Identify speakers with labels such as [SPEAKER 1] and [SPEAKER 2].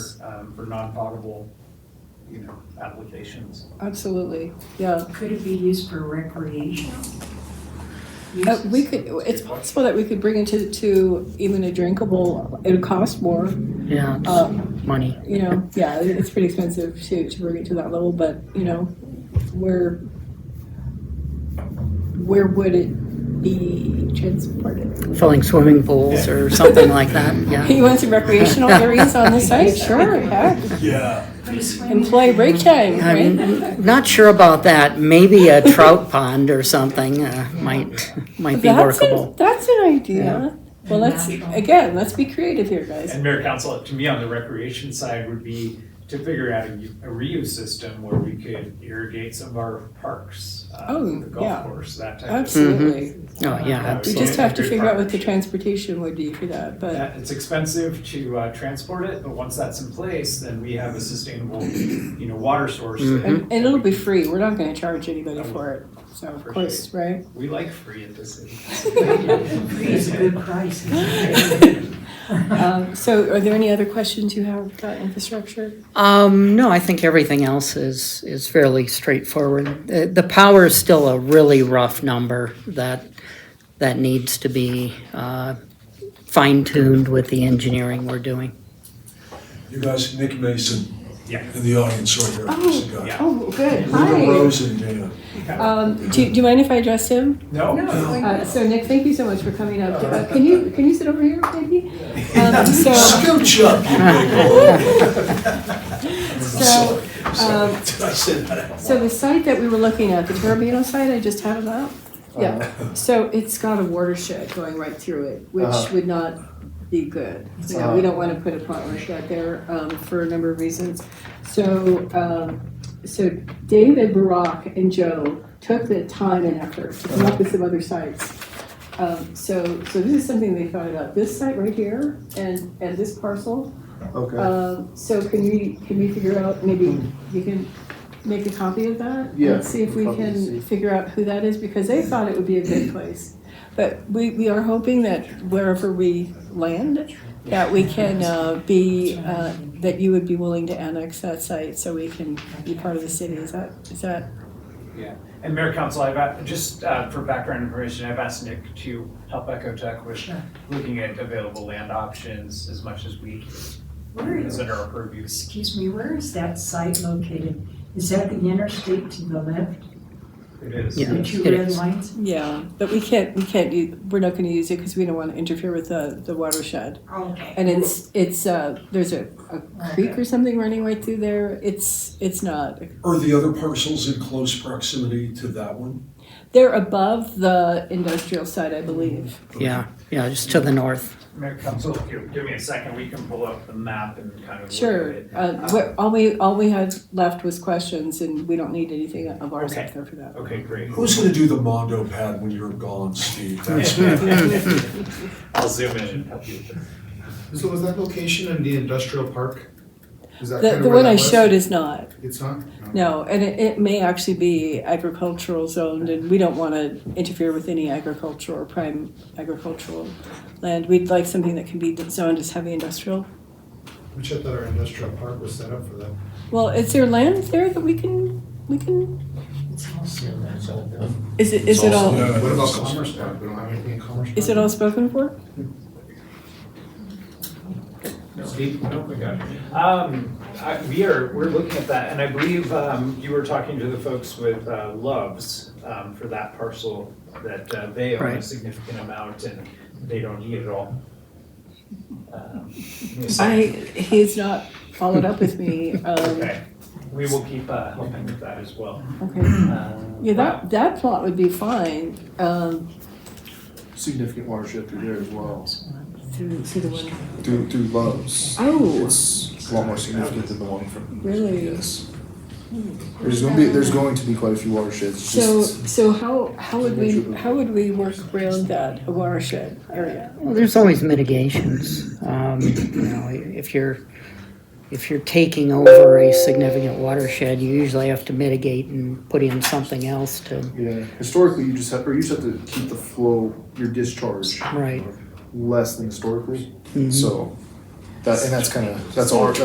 [SPEAKER 1] um, for non-potable, you know, applications.
[SPEAKER 2] Absolutely, yeah.
[SPEAKER 3] Could it be used for recreational?
[SPEAKER 2] Uh,
[SPEAKER 3] uses?
[SPEAKER 2] we could, it's possible that we could bring it to, to even a drinkable, it would cost more,
[SPEAKER 4] Yeah,
[SPEAKER 2] uh,
[SPEAKER 4] money.
[SPEAKER 2] you know, yeah, it- it's pretty expensive to, to bring it to that level, but, you know, where, where would it be transported?
[SPEAKER 4] Filling swimming pools or something like that, yeah.
[SPEAKER 2] You want some recreational areas on the site? Sure, heck.
[SPEAKER 1] Yeah.
[SPEAKER 3] Put a swimming
[SPEAKER 2] Employee break time,
[SPEAKER 4] I'm
[SPEAKER 2] right?
[SPEAKER 4] not sure about that. Maybe a trout pond or something uh, might, might be
[SPEAKER 2] That's, a-
[SPEAKER 4] workable.
[SPEAKER 2] that's an idea. Well, let's,
[SPEAKER 3] Natural.
[SPEAKER 2] again, let's be creative here, guys.
[SPEAKER 1] And mayor council, to me, on the recreation side would be to figure out a u- a reuse system where we could irrigate some of our parks. uh,
[SPEAKER 2] Oh,
[SPEAKER 1] The
[SPEAKER 2] yeah.
[SPEAKER 1] golf course, that type of.
[SPEAKER 2] Absolutely.
[SPEAKER 4] Oh, yeah,
[SPEAKER 2] We
[SPEAKER 4] absolutely.
[SPEAKER 2] just have to
[SPEAKER 1] Good
[SPEAKER 2] figure out what the
[SPEAKER 1] partnership.
[SPEAKER 2] transportation would be for that, but
[SPEAKER 1] That- It's expensive to uh, transport it, but once that's in place, then we have a sustainable, you know, water source. that-
[SPEAKER 2] and, and it'll be free. We're not going to charge anybody for it. So of course, right?
[SPEAKER 1] We like free at this city.
[SPEAKER 3] Free is a good price.
[SPEAKER 2] Um, so, are there any other questions you have about infrastructure?
[SPEAKER 4] Um, no, I think everything else is, is fairly straightforward. The, the power is still a really rough number that, that needs to be uh, fine tuned with the engineering we're doing.
[SPEAKER 5] You guys, Nick Mason
[SPEAKER 1] Yeah.
[SPEAKER 5] in the audience right there. There's a guy.
[SPEAKER 2] Oh, good.
[SPEAKER 5] Linda Rose and Dana.
[SPEAKER 2] Um, do, do you mind if I address him?
[SPEAKER 1] No?
[SPEAKER 2] Uh, so Nick, thank you so much for coming up. Uh, can you can you sit over here, maybe? Um, so
[SPEAKER 5] Scooch up, you big
[SPEAKER 2] so um,
[SPEAKER 5] hole. Did I say that out
[SPEAKER 2] so the site that we were looking at, the Terrabino site, I just had it up.
[SPEAKER 6] Uh,
[SPEAKER 2] Yeah. So it's got a watershed going right through it, which
[SPEAKER 6] Uh-huh.
[SPEAKER 2] would not be good. You know, we don't want to put a plant like that there um, for a number of reasons. So um, so David Barak and Joe took the time and effort to come up with some other sites. Um, so so this is something they thought about. This site right here and and this parcel
[SPEAKER 6] Okay,
[SPEAKER 2] Um, so can we, can we figure out, maybe you can make a copy of that?
[SPEAKER 6] Yeah,
[SPEAKER 2] And see if we
[SPEAKER 6] I'll probably see.
[SPEAKER 2] can figure out who that is, because they thought it would be a good place. But we, we are hoping that wherever we land, that we can, uh, be, uh, that you would be willing to annex that site so we can be part of the city. Is that, is that,
[SPEAKER 1] Yeah, and Mayor Council, I've, a- just uh, for background information, I've asked Nick to help Echo Tech with looking at available land options as much as we
[SPEAKER 3] Where
[SPEAKER 1] can, is
[SPEAKER 3] is,
[SPEAKER 1] under our purview.
[SPEAKER 3] excuse me, where is that site located? Is that the interstate to the left,
[SPEAKER 1] It is.
[SPEAKER 4] Yeah.
[SPEAKER 3] the two
[SPEAKER 4] It
[SPEAKER 3] red
[SPEAKER 4] is.
[SPEAKER 3] lines?
[SPEAKER 2] yeah, but we can't, we can't, u- we're not gonna use it because we don't want to interfere with the, the watershed.
[SPEAKER 3] Okay.
[SPEAKER 2] And it's, it's, uh, there's a, a creek or something running right through there. It's, it's not.
[SPEAKER 5] Are the other parcels in close proximity to that one?
[SPEAKER 2] They're above the industrial side,
[SPEAKER 6] Mm,
[SPEAKER 2] I believe.
[SPEAKER 4] Yeah, yeah, just to the north.
[SPEAKER 1] Mayor Council, give give me a second, we can pull up the map and kind of look at
[SPEAKER 2] Sure.
[SPEAKER 1] it.
[SPEAKER 2] Uh, we're- all we, all we had left was questions and we don't need anything of ours up
[SPEAKER 1] Okay.
[SPEAKER 2] there for that.
[SPEAKER 1] Okay, great.
[SPEAKER 5] Who's gonna do the Mondo pad when you're gone, Steve? That's
[SPEAKER 1] I'll zoom in and help you with this.
[SPEAKER 6] so was that location in the industrial park? Is that
[SPEAKER 2] The,
[SPEAKER 6] kinda
[SPEAKER 2] the
[SPEAKER 6] where
[SPEAKER 2] one
[SPEAKER 6] that
[SPEAKER 2] I
[SPEAKER 6] was?
[SPEAKER 2] showed is not,
[SPEAKER 6] It's not?
[SPEAKER 2] no, and it, it may actually be agricultural zoned and we don't want to interfere with any agricultural or prime agricultural land. We'd like something that can be zoned as heavy industrial.
[SPEAKER 6] Which I thought our industrial park was set up for that.
[SPEAKER 2] Well, is there land there that we can, we can,
[SPEAKER 3] It's also,
[SPEAKER 2] is it, is it all?
[SPEAKER 6] What about Commerce Park? We don't have anything in Commerce Park?
[SPEAKER 2] Is it all spoken for?
[SPEAKER 1] No, Steve, no, we got it. Um, I, we are, we're looking at that, and I believe, um, you were talking to the folks with, uh, Loves, um, for that parcel that, uh, they own a
[SPEAKER 4] Right.
[SPEAKER 1] significant amount and they don't need it all. Um,
[SPEAKER 2] I, he's not followed up with me, um,
[SPEAKER 1] Okay, we will keep, uh, helping with that as well.
[SPEAKER 2] okay.
[SPEAKER 1] Um,
[SPEAKER 2] Yeah, that, that plot would be fine, um,
[SPEAKER 6] Significant watershed through there as well.
[SPEAKER 2] through, through the one,
[SPEAKER 6] Through, through Love's.
[SPEAKER 2] oh,
[SPEAKER 6] It's a lot more significant than the one from.
[SPEAKER 2] Really? Hmm.
[SPEAKER 6] There's gonna be, there's going to be quite a few watersheds,
[SPEAKER 2] so, so how, how would we, how would we work around that watershed area?
[SPEAKER 4] Well, there's always mitigations. Um, you know, if you're, if you're taking over a significant watershed, you usually have to mitigate and put in something else to,
[SPEAKER 7] Yeah, historically, you just have, or you just have to keep the flow, your discharge
[SPEAKER 4] right?
[SPEAKER 7] less than historically. So, that, and that's kind of, that's our,